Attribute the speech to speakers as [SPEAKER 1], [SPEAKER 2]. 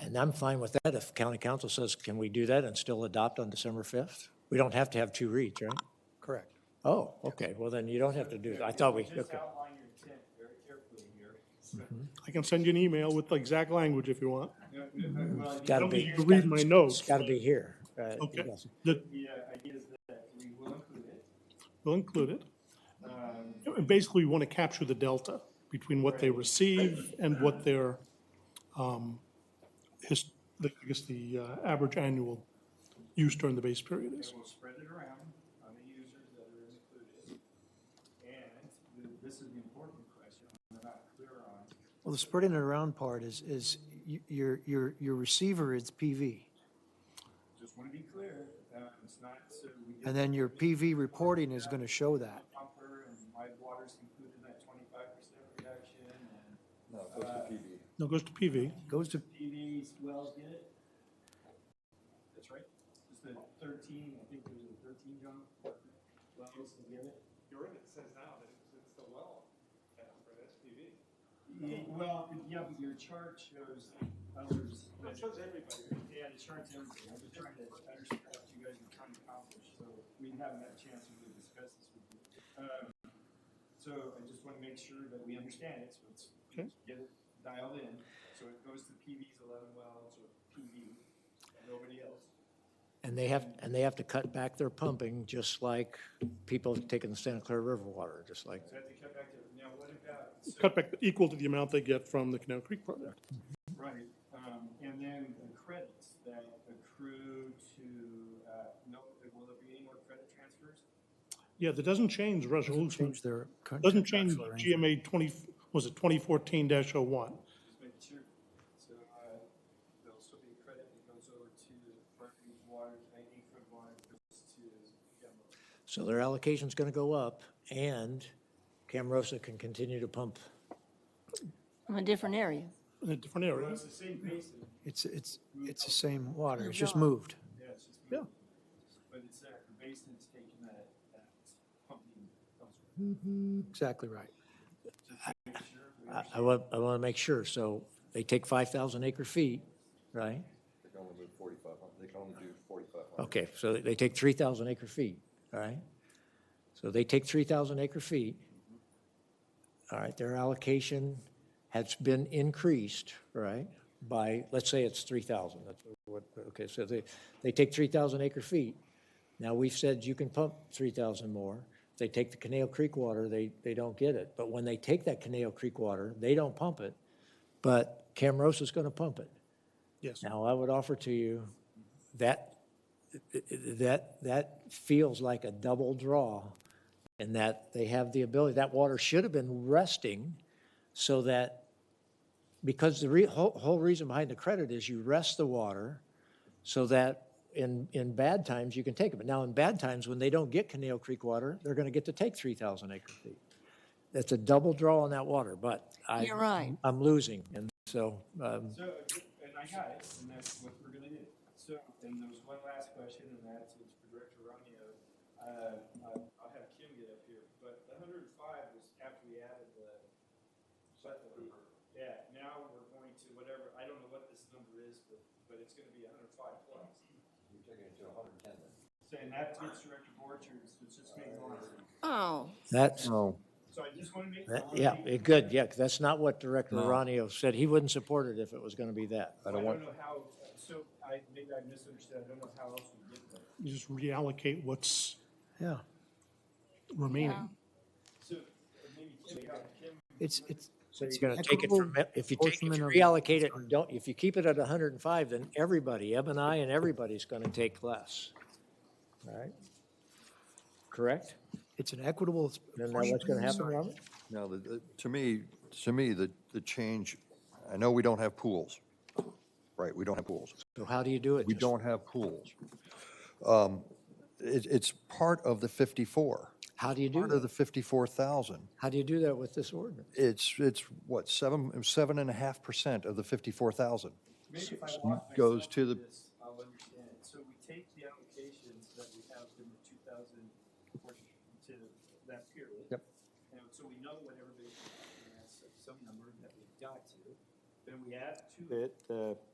[SPEAKER 1] And I'm fine with that if county council says, can we do that and still adopt on December 5th? We don't have to have two reads, right?
[SPEAKER 2] Correct.
[SPEAKER 1] Oh, okay, well then you don't have to do that. I thought we,
[SPEAKER 3] Just
[SPEAKER 1] okay.
[SPEAKER 3] outline your intent very carefully here.
[SPEAKER 4] I can send you an email with the exact language if you want.
[SPEAKER 3] Well,
[SPEAKER 1] It's
[SPEAKER 3] the-
[SPEAKER 4] I
[SPEAKER 1] gotta
[SPEAKER 4] don't
[SPEAKER 1] be.
[SPEAKER 4] think you can read my notes.
[SPEAKER 1] It's gotta be here. Uh, it
[SPEAKER 4] Okay.
[SPEAKER 1] doesn't-
[SPEAKER 4] That
[SPEAKER 3] The uh, idea is that we will include it.
[SPEAKER 4] will include it.
[SPEAKER 3] Um,
[SPEAKER 4] And Basically, we want to capture the delta between what they receive and what their, um, his, the- I guess, the uh, average annual use during the base period
[SPEAKER 3] and
[SPEAKER 4] is.
[SPEAKER 3] we'll spread it around on the users that are included. And th- this is the important question we're not clear on.
[SPEAKER 2] Well, the spreading it around part is, is y- your, your, your receiver is PV.
[SPEAKER 3] Just want to be clear, uh, it's not so we get
[SPEAKER 2] And then your PV reporting is going to show that.
[SPEAKER 3] pumper and live water's included in that twenty-five percent reduction and
[SPEAKER 5] No, it goes to PB.
[SPEAKER 4] Now it goes to PV.
[SPEAKER 2] Goes to,
[SPEAKER 3] PVs, wells get it. That's right. It's the thirteen, I think there's a thirteen, John, wells to get it.
[SPEAKER 6] Your ordinance says now that it's, it's the well that's for SPV.
[SPEAKER 3] Yeah, Well, yeah, but your chart shows others.
[SPEAKER 6] It shows everybody.
[SPEAKER 3] Yeah, the chart's everything. I'm just trying to understand what you guys are trying to accomplish, so we haven't had a chance to really discuss this with you. Um, So I just want to make sure that we understand it, so it's,
[SPEAKER 4] Okay.
[SPEAKER 3] get it dialed in. So it goes to PV's eleven wells or PV, and nobody else.
[SPEAKER 1] And they have, and they have to cut back their pumping, just like people taking the Santa Clara River water, just like,
[SPEAKER 3] So I have to cut back to, now what about? so-
[SPEAKER 4] Cut back equal to the amount they get from the Canal Creek project.
[SPEAKER 3] Right, um, and then the credits that accrue to, uh, no, will there be any more credit transfers?
[SPEAKER 4] Yeah, that doesn't change resolution.
[SPEAKER 2] change their. con-
[SPEAKER 4] Doesn't change
[SPEAKER 2] contractual arrangement.
[SPEAKER 4] GMA 20, was it 2014-01?
[SPEAKER 3] Just making sure, so, uh, there'll still be credit that goes over to Berkeley Water, Nike Food Water, goes to Gemma.
[SPEAKER 1] so their allocation's gonna go up and Camarosa can continue to pump.
[SPEAKER 7] from a different area.
[SPEAKER 4] In a different
[SPEAKER 3] Well,
[SPEAKER 4] area.
[SPEAKER 3] it's the same basin,
[SPEAKER 2] It's, it's, it's the same water. It's just moved.
[SPEAKER 3] yeah, it's just.
[SPEAKER 4] Yeah.
[SPEAKER 3] But it's, uh, the basin is taking that, that pumping elsewhere.
[SPEAKER 2] Exactly right.
[SPEAKER 1] I, I want, I wanna make sure, so they take five thousand acre feet, right?
[SPEAKER 5] They can only move forty-five hundred, they can only do forty-five hundred.
[SPEAKER 1] Okay, so they take 3,000 acre feet, all right? So they take 3,000 acre feet. All right, their allocation has been increased, right, by, let's say it's 3,000. That's what, okay, so they, they take 3,000 acre feet. Now, we've said you can pump 3,000 more. If They take the Canale Creek water, they, they don't get it. But when they take that Canale Creek water, they don't pump it, but Camarosa's going to pump it.
[SPEAKER 4] Yes.
[SPEAKER 1] Now, I would offer to you, that, that, that feels like a double draw in that they have the ability, that water should have been resting so that, because the re, whole, whole reason behind the credit is you rest the water so that in, in bad times, you can take it. But now in bad times, when they don't get Canal Creek water, they're gonna get to take three thousand acre feet. That's a double draw on that water, but I.
[SPEAKER 7] You're right.
[SPEAKER 1] I'm losing, and so, um,
[SPEAKER 3] So, and I got it, and that's what we're gonna do. So, and there was one last question, and that's it's for Director Romeo. Uh, I- I'll have Kim get up here, but the hundred and five was after we added the. but the- Yeah, now we're going to whatever, I don't know what this number is, but, but it's gonna be hundred and five plus.
[SPEAKER 5] You're taking it to hundred and ten then. Uh,
[SPEAKER 3] So, and that gets Director Borchers, which just makes more sense.
[SPEAKER 7] Oh,
[SPEAKER 1] that's.
[SPEAKER 3] So I just wanna make. I
[SPEAKER 1] That-
[SPEAKER 3] wanna
[SPEAKER 1] Yeah, eh,
[SPEAKER 3] make-
[SPEAKER 1] good, yeah, 'cause that's not what Director Ronio said. He wouldn't support it if it was going to be that.
[SPEAKER 3] I don't know how, so I, maybe I misunderstood, I don't know how else we get there.
[SPEAKER 4] You just reallocate what's
[SPEAKER 2] Yeah.
[SPEAKER 4] remaining.
[SPEAKER 3] So, uh, maybe Kim, yeah, Kim
[SPEAKER 2] It's, it's.
[SPEAKER 1] So you're going to take it from, if you take, if you
[SPEAKER 2] Equitable portion
[SPEAKER 1] reallocate it, and don't, if you keep it at 105, then everybody, Eb and I and everybody's going to take less. All right? Correct?
[SPEAKER 2] It's an equitable.
[SPEAKER 1] Then now what's going to happen, Robert?
[SPEAKER 5] Now, the- the- to me, to me, the, the change, I know we don't have pools, right? We don't have pools.
[SPEAKER 1] So how do you do it?
[SPEAKER 5] We
[SPEAKER 1] Just-
[SPEAKER 5] don't have pools. Um, It, it's part of the fifty-four,
[SPEAKER 1] How do you do
[SPEAKER 5] part
[SPEAKER 1] that?
[SPEAKER 5] of the fifty-four thousand.
[SPEAKER 1] How do you do that with this ordinance?
[SPEAKER 5] It's, it's what, seven, seven and a half percent of the fifty-four thousand?
[SPEAKER 3] Maybe if I walk myself
[SPEAKER 5] goes to
[SPEAKER 3] through
[SPEAKER 5] the-
[SPEAKER 3] this, I'll understand it. So we take the allocations that we have in the two thousand portion to that period.
[SPEAKER 5] Yep.
[SPEAKER 3] And so we know what everybody has, some number that we've got to. Then we add to it the